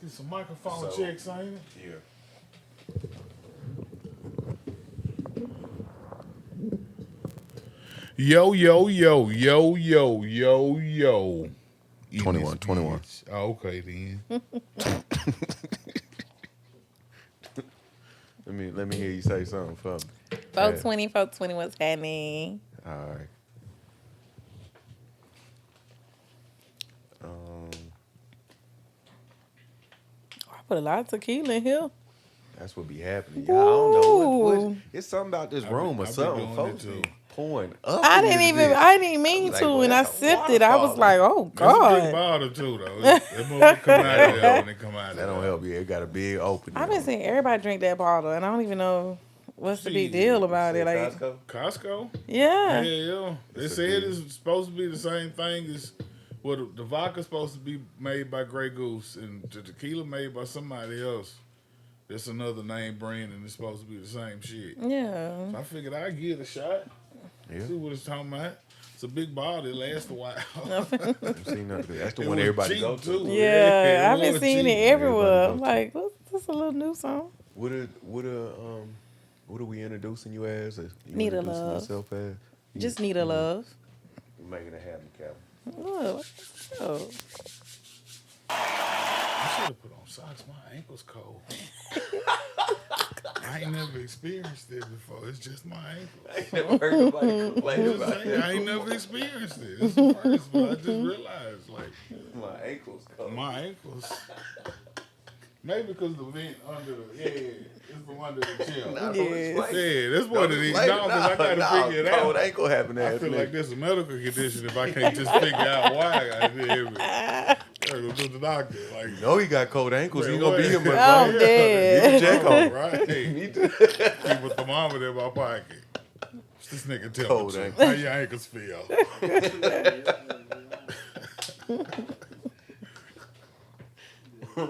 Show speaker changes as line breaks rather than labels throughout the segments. Get some microphone
So-
checks, ain't it?
Yeah.
Yo, yo, yo, yo, yo, yo, yo. In
21,
this
21.
bitch. Oh, okay, then.
Let me let me hear you say something for me.
420, 420, what's happening?
All right. Um,
I put a lot of tequila in here.
that's what be happening. Yeah, I don't know. What, what-
Ooh.
it's something about this
been-
room or
I've been
something.
doing
Folks
it too.
be pouring up.
I
in
didn't
this
even,
bitch.
I didn't mean
Like,
to,
well,
and I
that's a
sipped it. I
waterfall.
was like, oh
That's a big
god.
bottle, too, though. That motherfucker come out of there when it come out of
That don't
there.
help you. It got a big opening.
I've been seeing everybody drink that bottle, and I don't even know what's the big
Jeez.
deal about it. Like,
Costco?
Costco? Yeah,
yeah,
yeah. They
It's a
said
deal.
it's supposed to be the same thing as well, the, the vodka's supposed to be made by Grey Goose and the tequila made by somebody else. That's another name brand, and it's supposed to be the same shit.
yeah.
I figured I'd give it a shot.
Yeah.
See what it's talking about. It's a big bottle. It lasts a while.
I've seen that. That's the
It
one
was
everybody
cheap,
go to.
too.
Yeah,
Yeah,
I've been
Lord
seeing
Jesus.
it everywhere.
Everybody
I'm like, what's this a little new song?
What are what are um what are we introducing you as? Or You
Need a
introducing
love.
Yourself as? You-
Just need a love.
you making it happen, Calvin.
Look, oh,
I should have put on socks. My ankle's cold. I ain't never experienced it before. It's just my ankle.
I ain't never heard nobody complain
Just
about
saying, I ain't
that.
never experienced it. It's the first, but I just realized like
My ankles cold.
my ankles. Maybe because the vent under the yeah, it's from under the
Nah,
chair.
don't
Yes.
explain.
Yeah, that's
Don't
what it is. No,
explain.
'cause I gotta
nah,
figure it
Cold
out.
ankle happened to
I feel
happen.
like there's a medical condition if I can't just figure out why I did it. I gotta go to the doctor. Like,
You know Oh, he got cold ankles. He
Man,
gonna be
what?
here much
I'm
longer.
dead.
You check on him.
right? Keep
Me too.
a thermometer in my pocket. What's This nigga tell
Cold
me
ankle.
how your ankles feel. I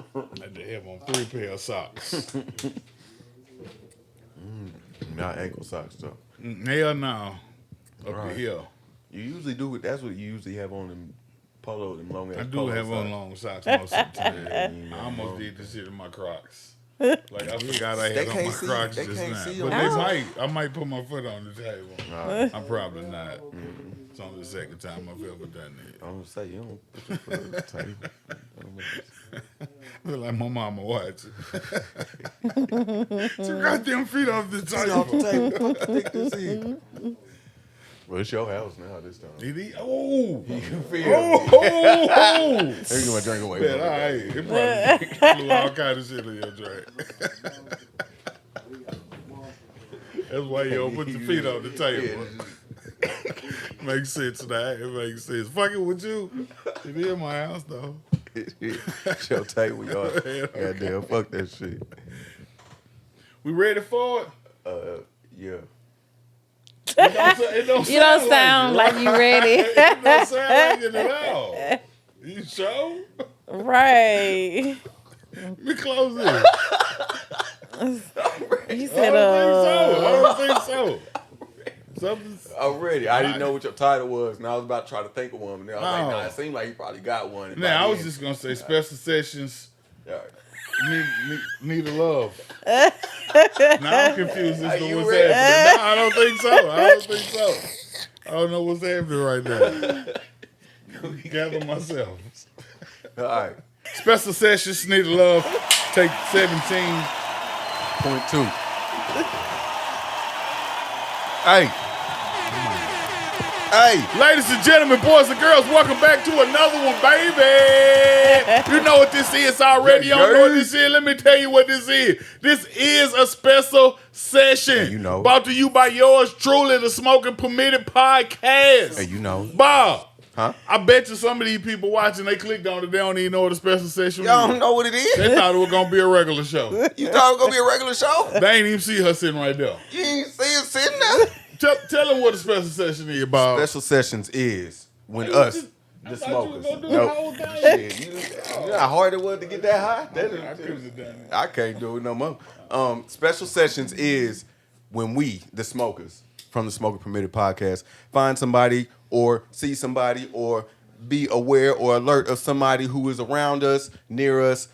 had to have on three pair of socks.
Not ankle socks though.
Mm, Hell no. Up
Right.
here.
You usually do it. That's what you usually have on them polo, them long ass.
I do
polo
have on
socks.
long socks most of the time.
Yeah,
I
no.
almost did this shit in my Crocs. Like I forgot I
They
had on
can't
my
see-
Crocs
they
just
can't
now,
see
but
your
they
Crocs.
might. I might put my foot on the table.
Nah,
I'm probably not. It's only the second time I've ever done that.
I'm gonna say you don't put your foot on the table. I don't know.
Look like my mama watch. Two goddamn feet off the
off the
table.
table. Stick this in. Well, it's your house now this time.
Did he? Oh,
You feel
oh, oh,
me?
oh.
Every time I drink away.
Man, all
from it.
right. It probably flew all kind of shit in your drink. That's why you don't put your feet on the table. makes sense now. It makes sense. Fuck it with you. It is my house though.
it's your table, y'all. Goddamn, fuck that shit.
We ready for it?
Uh, yeah.
It don't, sa- it don't
you don't
sound
sound like you ready,
it. It don't sound like it at all. You sure?
right?
Let me close this.
You
I
said, uh,
don't think so. I don't think so. Something's
Already, I didn't know what your title was, and I was about to try to think of one, but then I was
Oh.
like, nah, it seemed like you probably got one. And
now. I
by
was
then-
just gonna say special sessions
All right.
need need, need a love. now I'm confused
Are
as to
you
what's
ready?
happening. No, I don't think so. I don't think so. I don't know what's happening right now. Gather myself.
All right.
Special sessions need a love. Take seventeen.
Point two. hey. Hey.
Ladies and gentlemen, boys and girls, welcome back to another one, baby. You know what this is already. Y'all know what this is. Let me tell you what this is. This is a special session.
you know.
Brought to you by yours truly, the Smoking Permitted Podcast.
Hey, you know.
Bob,
Huh?
I bet you some of these people watching, they clicked on it. They don't even know what a special session
Y'all don't
is.
know what it is?
They thought it was going to be a regular show.
You thought it was going to be a regular show?
they ain't even see her sitting right there.
You ain't see it sitting there?
Tell, tell them what a special session is, Bob.
Special sessions is when
Hey,
us,
you-
the
thought you was
smokers.
gonna do the whole thing.
Shit, you, you know how hard it was to get that high? That is-
I couldn't have done it.
I can't do it no more. Um, special sessions is when we, the smokers, from the Smoker Permitted podcast, find somebody or see somebody or be aware or alert of somebody who is around us, near us,